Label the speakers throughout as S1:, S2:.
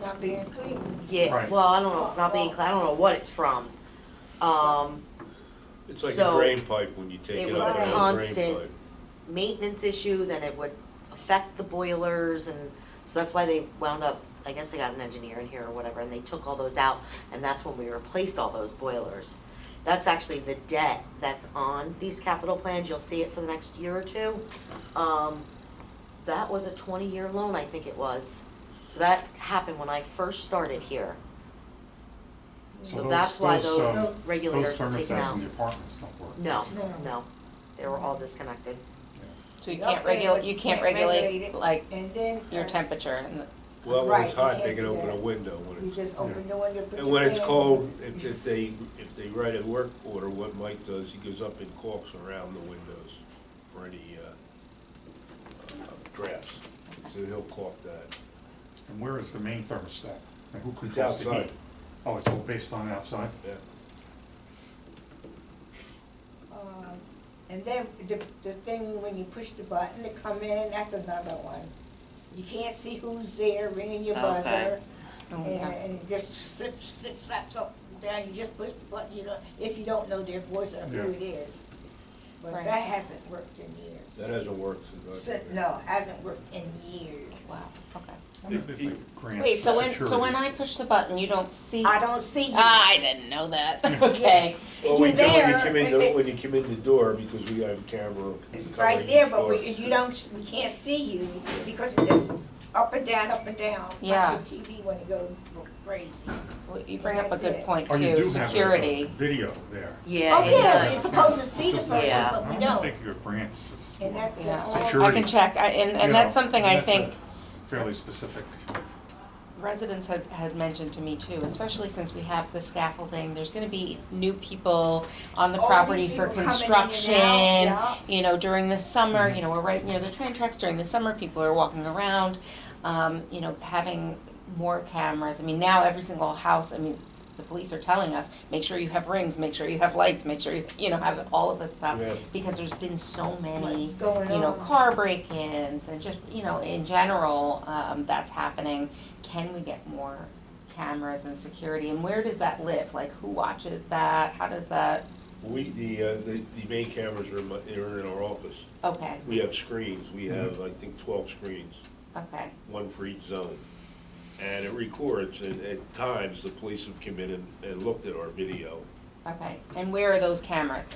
S1: not being clean.
S2: Yeah,
S3: Right.
S2: well, I don't know, if it's not being, clean. I don't know what it's from. Um,
S4: It's like a
S2: So,
S4: drain pipe when you take
S2: it
S4: it
S2: was
S4: out
S1: a
S4: of the drain
S2: constant-
S4: pipe.
S2: maintenance issue, then it would affect the boilers and, so that's why they wound up, I guess they got an engineer in here or whatever, and they took all those out, and that's when we replaced all those boilers. That's actually the debt that's on these capital plans, you'll see it for the next year or two. Um, that was a twenty-year loan, I think it was. So that happened when I first started here. So
S3: those-
S2: that's why
S3: those,
S2: those
S3: um,
S2: regulators were taken
S3: Those thermostats
S2: out.
S3: in the apartments don't work.
S2: No,
S1: No.
S2: no, they were all disconnected.
S5: So you
S1: You're
S5: can't
S1: okay,
S5: regulate,
S1: but
S5: you can't regulate
S1: it.
S5: like
S1: And then.
S5: your
S1: uh,
S5: temperature and,
S4: Well, when it's
S1: Right, you
S4: hot, they
S1: can't
S4: can
S1: do
S4: open a
S1: that.
S4: window when
S1: You
S4: it's,
S1: just open the window, put your.
S4: and when it's
S1: hand-
S4: cold, if, if they, if they write a work order, what Mike does, he goes up and caulks around the windows for any, uh, uh, drafts. So he'll caulk that.
S3: And where is the main thermostat? And who
S4: It's
S3: controls the heat?
S4: outside,
S3: Oh, it's all based on outside?
S4: yeah.
S1: Um, And then the, the thing when you push the button to come in, that's another one. You can't see who's there ringing your
S2: Okay.
S1: buzzer.
S5: Oh,
S1: And,
S5: yeah.
S1: and it just flips, flip, flaps up and down, you just push the button, you don't, if you don't know their voice or who
S3: Yeah.
S1: it is. But
S5: Right.
S1: that hasn't worked in years.
S4: That hasn't worked since I've
S1: So-
S4: been here.
S1: No, hasn't worked in years.
S5: wow, okay.
S3: I wonder if there's like a grant
S5: Wait, so
S3: for
S5: when, so when
S3: security.
S5: I push the button, you don't see?
S1: I don't see you.
S5: Ah, I didn't know that, okay.
S1: You're
S4: Well, when you- When you
S1: there,
S4: come in,
S1: it-
S4: the-
S1: it-
S4: when you come in the door, because we have a camera covering
S1: right there,
S4: each
S1: but we,
S4: door.
S1: you don't, we can't see you because it's just up and down, up and down.
S5: Yeah.
S1: Like your TV when it goes crazy.
S5: Well, You bring up a
S1: That's
S5: good
S1: it.
S5: point
S3: Oh, you do
S5: too,
S3: have a- a
S5: security.
S3: Video there.
S2: Yeah,
S1: Oh,
S2: it
S1: yeah,
S2: does.
S3: Uh,
S1: you're supposed to see the
S3: Just-
S1: person,
S2: Yeah.
S1: but we
S3: I don't
S1: don't.
S3: think your grants is
S1: And
S3: more-
S1: that's Oh,
S5: Yeah.
S1: the
S3: Security.
S1: only,
S5: I can check, I, and,
S3: you
S5: and that's
S3: know,
S5: something I
S3: that's a
S5: think
S3: Fairly specific.
S5: residents had, had mentioned to me too, especially since we have the scaffolding, there's gonna be new people on the
S1: All these
S5: property
S1: people
S5: for
S1: coming in and out,
S5: construction.
S1: yeah.
S5: You know, during the summer, you know, we're right near the train tracks, during the summer, people are walking around, um, you know, having more cameras, I mean, now every single house, I mean, the police are telling us, make sure you have rings, make sure you have lights, make sure you, you know, have all of this stuff.
S4: Yeah.
S5: Because there's been so many,
S1: What's
S5: you
S1: going
S5: know,
S1: on?
S5: car break-ins and just, you know, in general, um, that's happening. Can we get more cameras and security, and where does that live, like, who watches that, how does that,
S4: We, the, uh, the, the main cameras are in, my- are in our office.
S5: okay,
S4: We have screens, we have, I think, twelve screens,
S5: okay,
S4: one for each zone. And it records, and at times, the police have come in and, and looked at our video.
S5: okay, and where are those cameras?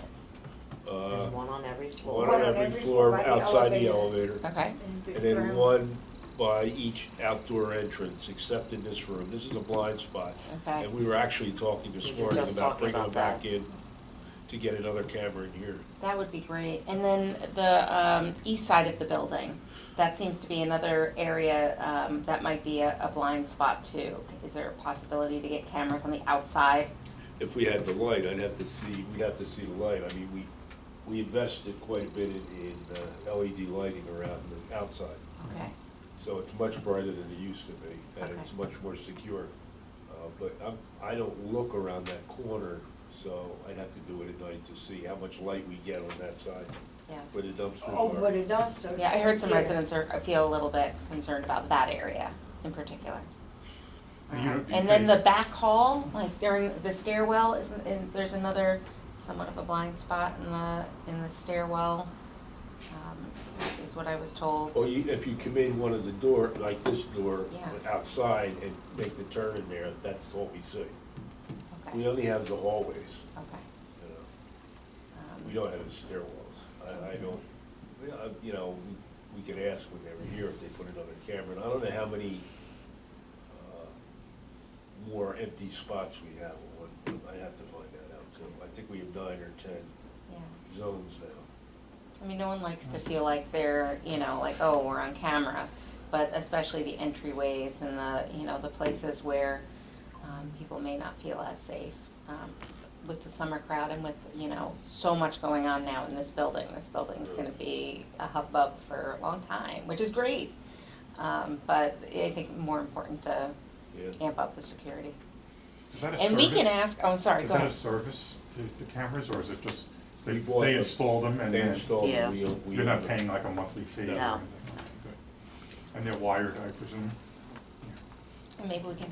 S4: Uh,
S2: There's one on every floor.
S4: one on every floor
S1: by the
S4: outside the
S1: elevator.
S4: elevator,
S5: Okay,
S1: and the
S4: and then
S1: ground-
S4: one by each outdoor entrance, except in this room. This is a blind spot.
S5: okay,
S4: And we were actually talking
S2: We
S4: this
S2: were
S4: morning
S2: just
S4: about
S2: talking
S4: bringing them
S2: about
S4: back
S2: that.
S4: in to get another camera in here.
S5: that would be great, and then the, um, east side of the building, that seems to be another area, um, that might be a, a blind spot too. Is there a possibility to get cameras on the outside?
S4: if we had the light, I'd have to see, we'd have to see the light. I mean, we, we invested quite a bit in, in uh, LED lighting around the outside.
S5: Okay,
S4: So it's much brighter than it used to be, and it's
S5: Okay.
S4: much more secure. Uh, But I'm, I don't look around that corner, so I'd have to do it at night to see how much light we get on that side
S5: yeah.
S4: where the
S1: Oh,
S4: dumpsters
S1: but
S4: are.
S1: a dumpster.
S5: Yeah, I heard some
S1: Yeah.
S5: residents are, feel a little bit concerned about that area in particular.
S3: You know,
S5: Um,
S3: do you
S5: And then the
S3: think-
S5: back hall, like during the stairwell, isn't, and there's another somewhat of a blind spot in the, in the stairwell, um, is what I was told.
S4: Or you, if you come in one of the door, like this door,
S5: Yeah.
S4: outside and make the turn in there, that's all we see. We
S5: Okay,
S4: only have the hallways,
S5: okay.
S4: you know.
S5: um,
S4: We don't have any stairwells. I, I don't, yeah, I- you know, we- we could ask when they were here if they put another camera. And I don't know how many uh, more empty spots we have. on one. I have to find that out too. I think we have nine or ten
S5: Yeah,
S4: zones now.
S5: I mean, no one likes to feel like they're, you know, like, oh, we're on camera, but especially the entryways and the, you know, the places where, um, people may not feel as safe. Um, with the summer crowd and with, you know, so much going on now in this building, this building's gonna be a hubbub for a long time, which is great. Um, but I think more important to
S4: Yeah.
S5: amp up the security.
S3: Is that a
S5: And we can
S3: service?
S5: ask, oh, sorry,
S3: Is
S5: go
S3: that a
S5: ahead.
S3: service, the- the cameras, or is it just,
S4: We
S3: they,
S4: bought
S3: they
S4: them.
S3: install them and
S4: They
S3: then
S4: installed,
S2: Yeah.
S4: we, we.
S3: you're not paying like a monthly fee? or
S2: No.
S3: anything? Okay, good. And they're wired, I presume?
S5: And maybe we can